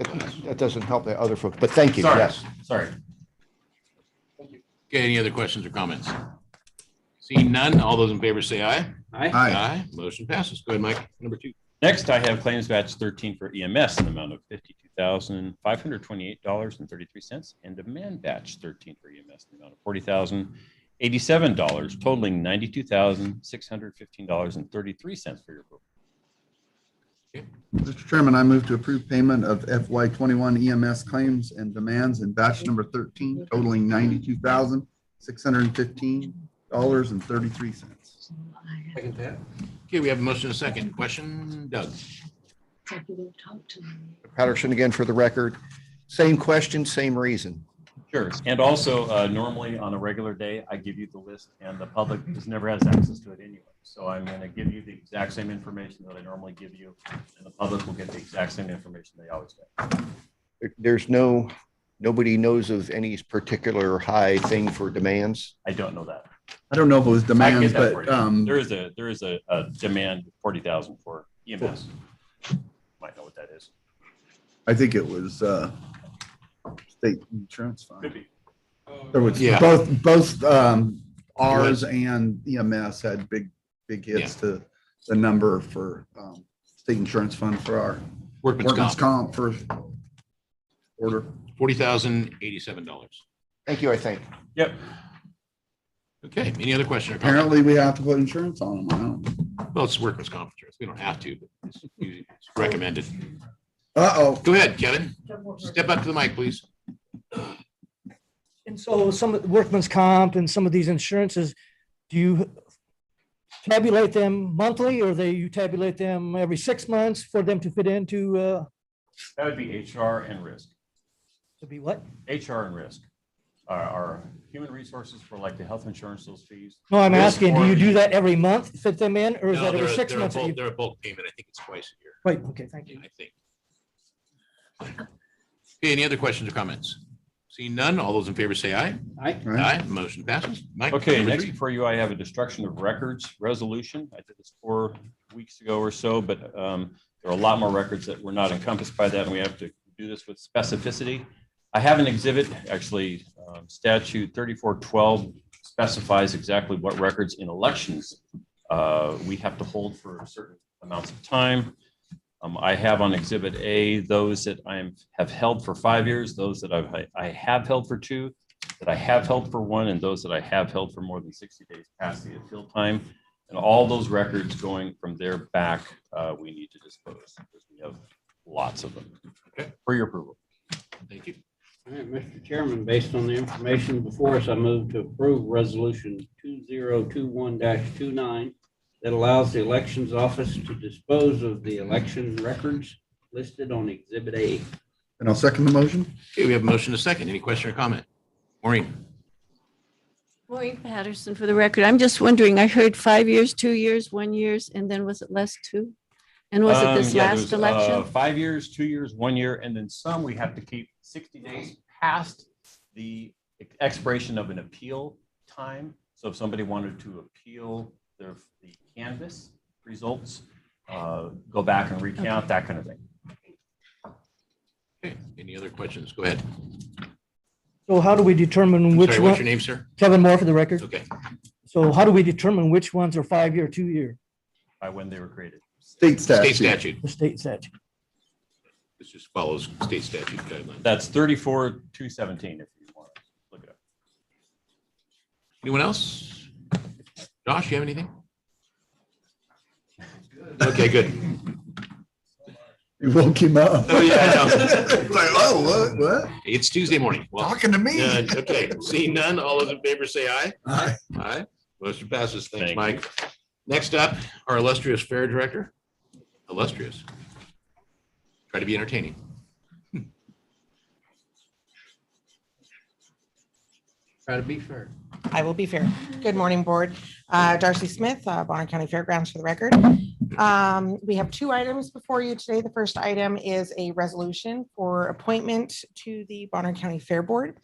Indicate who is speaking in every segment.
Speaker 1: That- That doesn't help the other folks, but thank you,
Speaker 2: Sorry,
Speaker 1: yes.
Speaker 2: sorry.
Speaker 3: Okay, any other questions or comments? Seeing none, all those in favor say aye.
Speaker 2: Aye.
Speaker 4: Aye.
Speaker 3: Aye. Motion passes. Go ahead, Mike. Number two.
Speaker 2: Next, I have claims batch thirteen for EMS in the amount of fifty-two thousand, five hundred twenty-eight dollars and thirty-three cents. And demand batch thirteen for EMS in the amount of forty thousand, eighty-seven dollars totaling ninety-two thousand, six hundred fifteen dollars and thirty-three cents for your approval.
Speaker 4: Mr. Chairman, I move to approve payment of FY twenty-one EMS claims and demands in batch number thirteen totaling ninety-two thousand, six hundred and fifteen dollars and thirty-three cents.
Speaker 3: Okay, we have a motion and a second. Question, Doug?
Speaker 5: executive talk to me.
Speaker 1: Patterson again for the record. Same question, same reason.
Speaker 2: Sure. And also, uh, normally on a regular day, I give you the list and the public has never has access to it anyway. So I'm going to give you the exact same information that I normally give you and the public will get the exact same information they always get.
Speaker 1: There- There's no, nobody knows of any particular high thing for demands.
Speaker 2: I don't know that.
Speaker 4: I don't know if it was
Speaker 2: I can
Speaker 4: demands,
Speaker 2: get that for
Speaker 4: but,
Speaker 2: you.
Speaker 4: um,
Speaker 2: There is a, there is a, a demand forty thousand for EMS. Might know what that is.
Speaker 4: I think it was, uh, state insurance fund.
Speaker 2: be.
Speaker 4: There was
Speaker 3: Yeah.
Speaker 4: both, both, um, ours and EMS had big, big hits to the number for, um, state insurance fund for our
Speaker 3: Workman's
Speaker 4: workman's
Speaker 3: comp,
Speaker 4: comp for order.
Speaker 3: forty thousand eighty-seven dollars.
Speaker 1: Thank you, I think.
Speaker 2: Yep.
Speaker 3: Okay, any other question or comment?
Speaker 4: Apparently, we have to put insurance on them. I don't.
Speaker 3: Well, it's workman's comp insurance. We don't have to, but it's usually- it's recommended.
Speaker 4: Uh-oh.
Speaker 3: Go ahead, Kevin. Step up to the mic, please.
Speaker 6: And so some of workman's comp and some of these insurances, do you tabulate them monthly or they, you tabulate them every six months for them to fit into, uh,
Speaker 2: That would be HR and risk.
Speaker 6: to be what?
Speaker 2: HR and risk are, are human resources for like the health insurance, those fees.
Speaker 6: No, I'm
Speaker 2: Risk
Speaker 6: asking, do you
Speaker 2: or-
Speaker 6: do that every month, fit them in, or is
Speaker 3: No,
Speaker 6: that
Speaker 3: they're
Speaker 6: every
Speaker 3: a-
Speaker 6: six
Speaker 3: they're a
Speaker 6: months? that
Speaker 3: bulk-
Speaker 6: you-
Speaker 3: They're a bulk payment. I think it's twice a year.
Speaker 6: Right, okay, thank you.
Speaker 3: I think. Okay, any other questions or comments? Seeing none, all those in favor say aye. Aye, motion passes. Mike,
Speaker 2: Okay,
Speaker 3: number
Speaker 2: next
Speaker 3: three.
Speaker 2: for you, I have a destruction of records resolution. I did this four weeks ago or so, but um, there are a lot more records that were not encompassed by that, and we have to do this with specificity. I have an exhibit, actually, um, statute thirty-four twelve specifies exactly what records in elections uh, we have to hold for certain amounts of time. Um, I have on Exhibit A, those that I'm, have held for five years, those that I've, I have held for two, that I have held for one, and those that I have held for more than sixty days past the appeal time. And all those records going from there back, uh, we need to dispose, because we have lots of them.
Speaker 3: Okay.
Speaker 2: For your approval.
Speaker 3: Thank you.
Speaker 7: All right, Mr. Chairman, based on the information before us, I move to approve Resolution 2021-29 that allows the Elections Office to dispose of the election records listed on Exhibit A.
Speaker 4: And I'll second the motion.
Speaker 3: Okay, we have a motion to second. Any question or comment? Maureen?
Speaker 8: Maureen Patterson, for the record, I'm just wondering, I heard five years, two years, one years, and then was it less two? And was it
Speaker 2: Um,
Speaker 8: this
Speaker 2: yeah, there
Speaker 8: last
Speaker 2: was, uh,
Speaker 8: election?
Speaker 2: Five years, two years, one year, and then some we have to keep sixty days past the expiration of an appeal time. So if somebody wanted to appeal their, the canvas results, uh, go back and recount, that kind of thing.
Speaker 3: Okay, any other questions? Go ahead.
Speaker 6: So how do we determine
Speaker 3: I'm
Speaker 6: which
Speaker 3: sorry, what's your
Speaker 6: one,
Speaker 3: name, sir?
Speaker 6: Kevin Moore for the record?
Speaker 3: Okay,
Speaker 6: So how do we determine which ones are five-year, two-year,
Speaker 2: by when they were created.
Speaker 4: State
Speaker 3: state
Speaker 4: statute.
Speaker 3: statute.
Speaker 6: the state statute?
Speaker 3: This just follows state statute guidelines.
Speaker 2: That's thirty-four, two seventeen, if you want to look it up.
Speaker 3: Anyone else? Josh, you have anything? Okay, good.
Speaker 4: You woke him up.
Speaker 3: Oh, yeah, I know.
Speaker 4: Like, oh, what, what?
Speaker 3: It's Tuesday morning. Well, uh,
Speaker 4: Talking to me?
Speaker 3: none. Okay, seeing none, all those in favor say aye.
Speaker 4: Aye.
Speaker 3: Aye. Motion passes. Thanks,
Speaker 2: Thank
Speaker 3: Mike. Next up, our illustrious fair director. Illustrious. Try to be entertaining.
Speaker 7: Try to be fair.
Speaker 9: I will be fair. Good morning, Board. Uh, Darcy Smith, uh, Bonner County Fairgrounds for the record. Um, We have two items before you today. The first item is a resolution for appointment to the Bonner County Fair Board.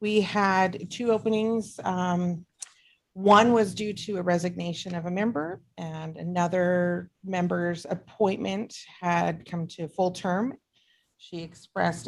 Speaker 9: We had two openings. Um, One was due to a resignation of a member and another member's appointment had come to full term. She expressed